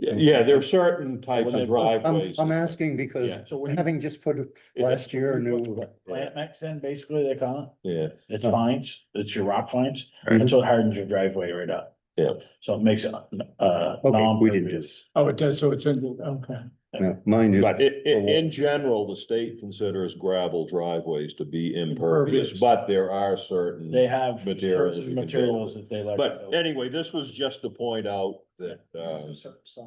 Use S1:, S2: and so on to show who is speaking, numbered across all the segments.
S1: Yeah, yeah, there are certain types
S2: Well,
S1: of
S2: then-
S3: I'm,
S1: driveways.
S3: I'm
S1: that-
S3: asking because
S1: Yeah.
S2: So when you
S3: having just put it last year a new,
S2: plant mix in, basically they call
S1: Yeah,
S2: it, it's fines, it's your rock fines,
S3: Right.
S2: that's what hardens your driveway right up.
S1: Yeah.
S2: So it makes it, uh.
S3: Okay, we didn't do
S2: non-pervious.
S4: Oh, it does, so it's in, okay.
S3: no, mine is,
S1: but i- i- in general, the state considers gravel driveways to be impervious,
S4: Impervious.
S1: but there are certain.
S2: They have
S1: Materials you
S2: certain
S1: can build.
S2: materials that they like.
S1: But anyway, this was just to point out that, uh,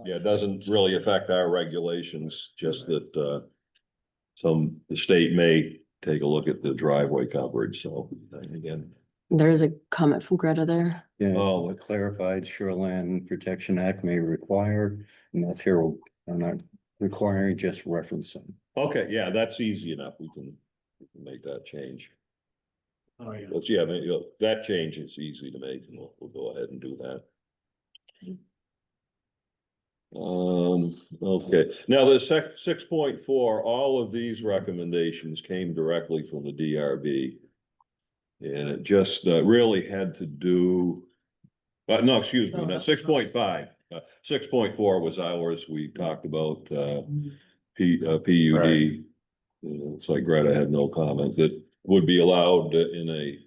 S1: yeah, it doesn't really affect our regulations, just that, uh, some, the state may take a look at the driveway coverage, so uh, again,
S5: There is a comment from Greta there.
S3: yeah,
S1: Oh.
S3: a clarified Shoreland Protection Act may require, and that's here, I'm not requiring, just referencing.
S1: okay, yeah, that's easy enough. We can we can make that change.
S4: Oh, yeah.
S1: But yeah, I mean, you know, that change is easy to make, and we'll, we'll go ahead and do that. Um, okay, now the sec, six point four, all of these recommendations came directly from the DRB. And it just uh, really had to do, uh, no, excuse me,
S4: No,
S1: no,
S4: Oh, that's-
S1: six point five. Uh, six point four was ours, we talked about, uh, P, uh, PUD.
S2: Right.
S1: You know, It's like Greta had no comments that would be allowed in a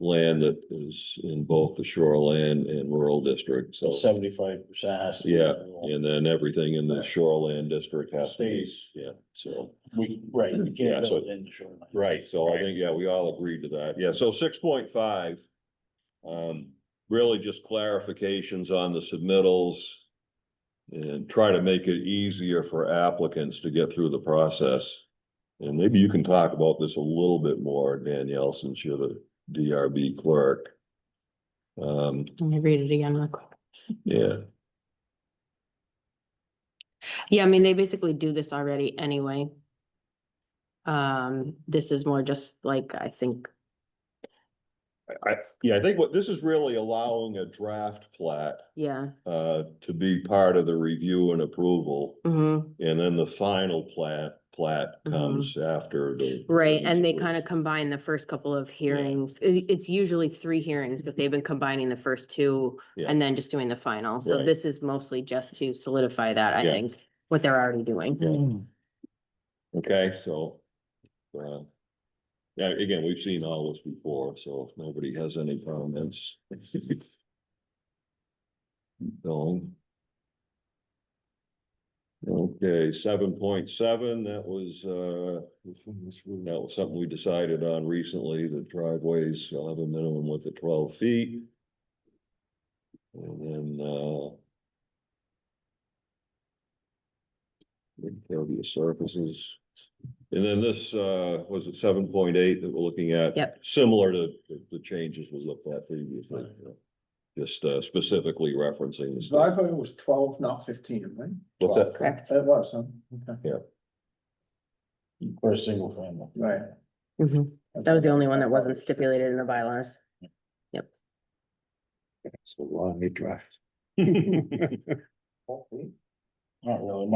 S1: land that is in both the shoreland and rural district, so.
S2: Seventy-five percent.
S1: Yeah, and then everything in the
S2: Right.
S1: shoreland district has to be,
S2: Stays.
S1: yeah, so.
S2: We, right, you
S1: Yeah,
S2: can't
S1: so-
S2: build in the shoreline.
S1: Right, so I think, yeah, we all agreed to that. Yeah, so six point five. Um, really just clarifications on the submittals. And try to make it easier for applicants to get through the process. And maybe you can talk about this a little bit more, Danielle, since you're the DRB clerk. Um,
S5: Let me read it again real quick.
S1: yeah,
S5: Yeah, I mean, they basically do this already anyway. Um, this is more just like, I think,
S1: yeah, I think what this is really allowing a draft plat
S5: yeah,
S1: uh to be part of the review and approval.
S5: mm-hmm,
S1: And then the final plat, plat comes after the.
S5: right, and they kind of combine the first couple of hearings. It, it's usually three hearings, but they've been combining the first two
S1: Yeah.
S5: and then just doing the final. So
S1: Right.
S5: this is mostly just to solidify that, I
S1: Yeah.
S5: think, what they're already doing.
S1: Okay, so. uh, Yeah, again, we've seen all this before, so if nobody has any comments. Going. Okay, seven point seven, that was, uh, that was something we decided on recently, that driveways shall have a minimum width of twelve feet. And then, uh, impervious surfaces. And then this, uh, was it seven point eight that we're looking at?
S5: Yep.
S1: Similar to the- the changes we looked at previously. Just uh, specifically referencing. the
S4: His
S1: state.
S4: driveway was twelve, not fifteen, right?
S1: What's that?
S5: Correct.
S4: That was, huh? Okay,
S2: For a single family.
S4: right.
S5: Mhm. That was the only one that wasn't stipulated in the bylaws.
S3: It's a long drive.
S2: Not really.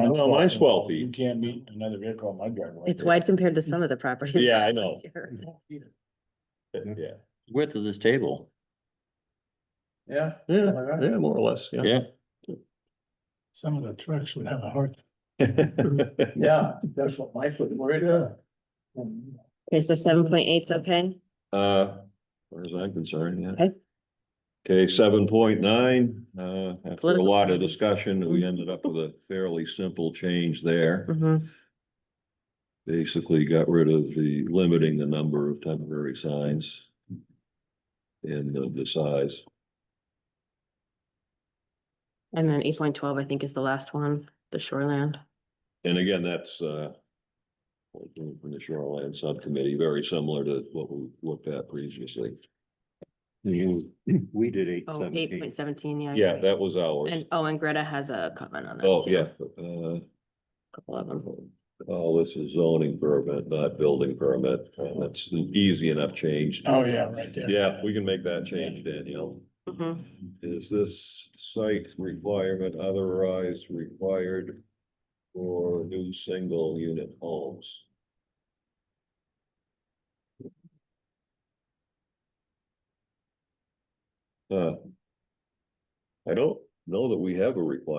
S1: Well, mine's 12 feet.
S2: You can't meet another vehicle in my driveway.
S5: It's wide compared to some of the properties.
S1: Yeah, I know.
S5: here.
S1: Yeah,
S6: width of this table.
S4: Yeah.
S1: yeah,
S4: All right.
S1: yeah, more or less, yeah.
S6: Yeah.
S4: Some of the trucks would have a hard.
S1: Yeah.
S4: Yeah, that's what my foot worried about.
S5: Okay, so seven point eight's okay?
S1: Uh, far as I'm concerned, yeah.
S5: Okay.
S1: Okay, seven point nine, uh, after a
S5: Political
S1: lot of
S5: science.
S1: discussion, we ended up with a fairly simple change there.
S5: Mm-hmm.
S1: basically got rid of the limiting the number of temporary signs and the, the size.
S5: And then eight point twelve, I think, is the last one, the shoreland.
S1: And again, that's, uh, what we do from the shoreline subcommittee, very similar to what we looked at previously.
S3: We did eight
S5: Oh, eight
S3: seventeen.
S5: point seventeen, yeah.
S1: Yeah,
S5: okay.
S1: that was ours.
S5: And, oh, and Greta has a comment on that.
S1: Oh,
S5: too,
S1: yeah, uh,
S5: Couple of them.
S1: oh, this is zoning permit, not building permit, and that's an easy enough change.
S2: Oh, yeah, right there.
S1: Yeah, we can make that change, Danielle.
S5: Mhm.
S1: Is this site requirement otherwise required for new single unit homes? Uh, I don't know that we have a requirement.